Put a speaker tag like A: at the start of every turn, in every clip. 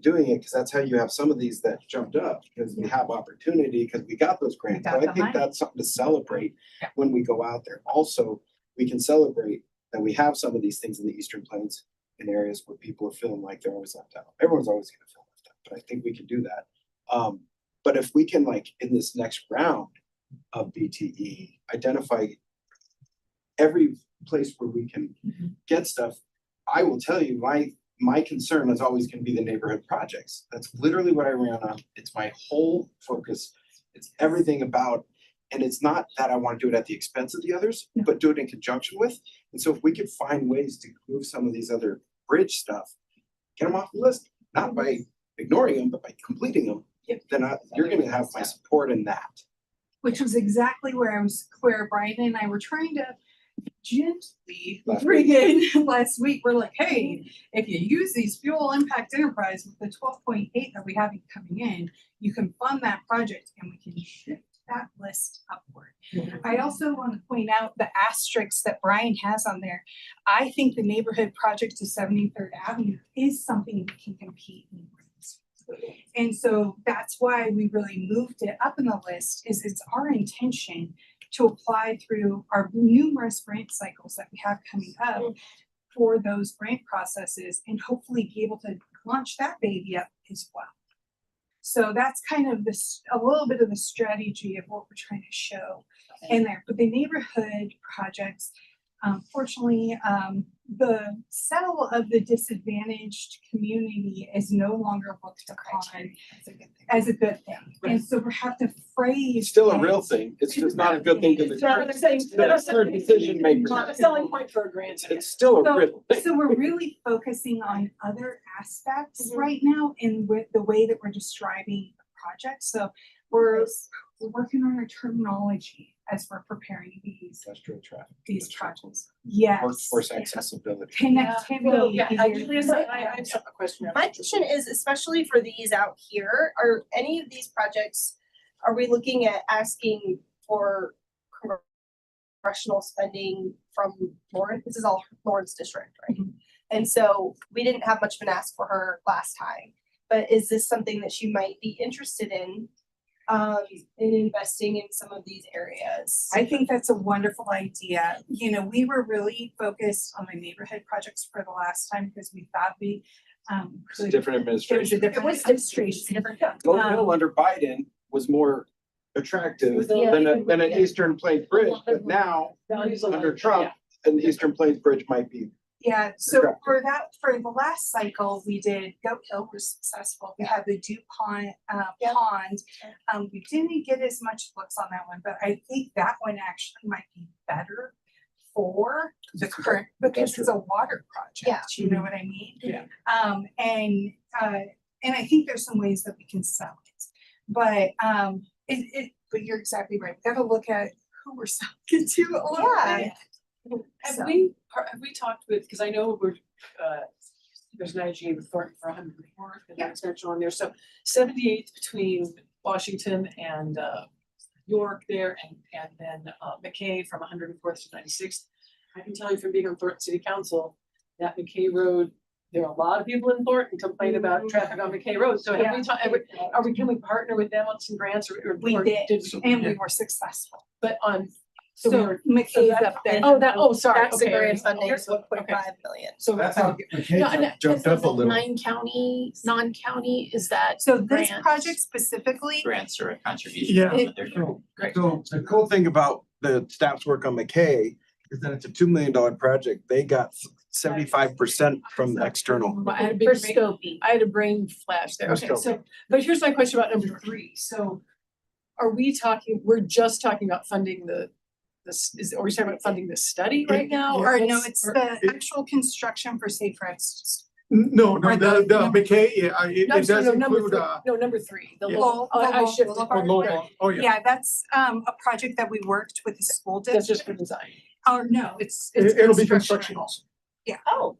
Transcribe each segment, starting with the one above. A: doing it, because that's how you have some of these that jumped up, because we have opportunity, because we got those grants.
B: got
A: But I
B: the
A: think
B: money.
A: that's something to celebrate
B: Yeah.
A: when we go out there. Also, we can celebrate that we have some of these things in the Eastern Plains in areas where people are feeling like they're always left out. Everyone's always gonna feel left out, but I think we can do that. Um, but if we can like, in this next round of BTE, identify every place where we can
C: Mm-hmm.
B: Mhm.
A: get stuff, I will tell you, my, my concern is always gonna be the neighborhood projects. That's literally what I ran on. It's my whole focus. It's everything about, and it's not that I wanna do it at the expense of the others,
B: No.
A: but do it in conjunction with. And so if we could find ways to move some of these other bridge stuff, get them off the list, not by ignoring them, but by completing them.
B: Yep.
A: Then I, you're gonna have my support in that.
B: Which was exactly where I was, where Brian and I were trying to gently
A: Last
B: bring in last week. We're like, hey, if you use these fuel impact enterprise with the twelve point eight that we have coming in, you can fund that project and we can shift that list upward. I also want to point out the asterisks that Brian has on there. I think the neighborhood project to Seventy Third Avenue is something that can compete in. grants. And so that's why we really moved it up in the list is it's our intention to apply through our numerous grant cycles that we have coming up for those grant processes and hopefully be able to launch that baby up as well. So that's kind of this, a little bit of the strategy of what we're trying to show in there, but the neighborhood projects, um, fortunately, um, the settle of the disadvantaged community is no longer looked upon as a good thing. And so we have to phrase.
A: It's still a real
B: things.
A: thing. It's just not a good thing to
C: It's not
A: the.
C: the same,
A: It's
C: not
A: not
C: a
A: for decision makers.
C: not a selling point for a grant.
A: It's, it's still a
B: So-
A: real thing.
B: So we're really focusing on other aspects
C: Mhm.
B: right now in with the way that we're describing the project, so we're, we're working on our terminology as we're preparing these,
A: Industrial traffic.
B: these projects. Yes.
A: Workforce accessibility.
C: Well,
B: Connectivity.
C: yeah,
B: is
C: I,
B: your-
C: Julia, so I, I have some- a question.
D: My question is especially for these out here, are any of these projects, are we looking at asking for congressional spending from Lauren? This is all Lauren's district, right? And so we didn't have much of an ask for her last time, but is this something that she might be interested in? Um, in investing in some of these areas?
B: I think that's a wonderful idea. You know, we were really focused on the neighborhood projects for the last time because we thought we um
A: It's a
B: could.
A: different
B: It was a
A: administration.
B: different
C: was
B: administration.
A: Gold
B: um,
A: Hill under Biden was more attractive
C: It was a-
A: than a, than an
C: yeah.
A: Eastern Plains Bridge, but now under Trump, an Eastern Plains Bridge might be.
B: Yeah, so
A: Correct.
B: for that, for the last cycle, we did Goat Hill was successful. We had the DuPont uh
D: Yeah.
B: pond.
D: Yeah.
B: Um, we didn't get as much looks on that one, but I think that one actually might be better for the current, because it's a water
D: Yeah.
B: project, you know what I mean?
C: Yeah.
B: Um, and, uh, and I think there's some ways that we can sell it, but, um, it, it, but you're exactly right. We gotta look at who we're selling it to a little
D: Yeah.
B: bit. So-
C: Have we, are- have we talked with, because I know we're, uh, there's an IGA with Thornton for a hundred and fourth, and that's mentioned on there, so seventy-eighth between Washington and, uh, York there, and, and then, uh, McKay from hundred and fourth to ninety-sixth. I can tell you from being on Thornton City Council, that McKay Road, there are a lot of people in Thornton complain about traffic on McKay Road, so have we talked, have we- are we, can we partner with them on some grants or? or-
B: We
C: or
B: did,
C: we-
B: and we were successful.
C: But on, so we
B: So
C: were-
B: McKay's
C: that-
B: up there.
C: oh, that, oh, sorry,
D: That's the
C: okay,
D: grant
C: okay,
D: funding is
C: okay.
D: one point five million.
C: So. No, no,
E: jumped
C: this
E: up a
C: is
E: little.
F: Nine county, non-county, is that
B: So this
F: Grants.
B: project specifically,
F: grants or a contribution?
E: Yeah.
F: But they're-
E: So
C: Great.
E: so the cool thing about the staff's work on McKay is that it's a two million dollar project. They got seventy-five percent from the external.
C: I had a big
F: For
C: brain-
F: scoping.
C: I had a brain flash there,
E: For
C: okay, so,
E: scoping.
C: but here's my question about number three, so. Are we talking, we're just talking about funding the, this, is, are we talking about funding this study right now?
B: or no,
C: what's-
B: it's
C: or-
B: the
E: it-
B: actual construction for safe routes.
E: No, no,
B: Right, the-
E: the, the
B: number-
E: McKay, yeah, I- it,
C: No, I'm
E: it
C: sorry,
E: does
C: no, number
E: include,
C: three-
E: uh,
C: No, number three, the
E: yeah.
C: low, oh, I
B: Lowell
C: shifted.
B: Boulevard.
E: Lowell, oh, yeah.
B: Yeah, that's um a project that we worked with the school
C: That's
B: district.
C: just for design.
B: Or no, it's it's
E: It- It'll be construction
B: construction.
E: also.
D: Oh,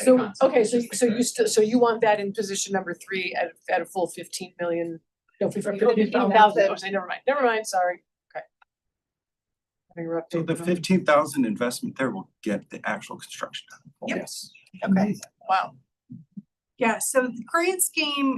C: So, okay, so, so you still, so you want that in position number three at, at a full fifteen million? No, fifteen
E: Fifteen
C: thousand,
D: thousand.
C: okay, never mind, never mind, sorry, okay. I think we're up to-
E: So the fifteen thousand investment there will get the actual construction.
B: Yep.
E: Yes.
C: Wow.
B: Yeah, so the grand scheme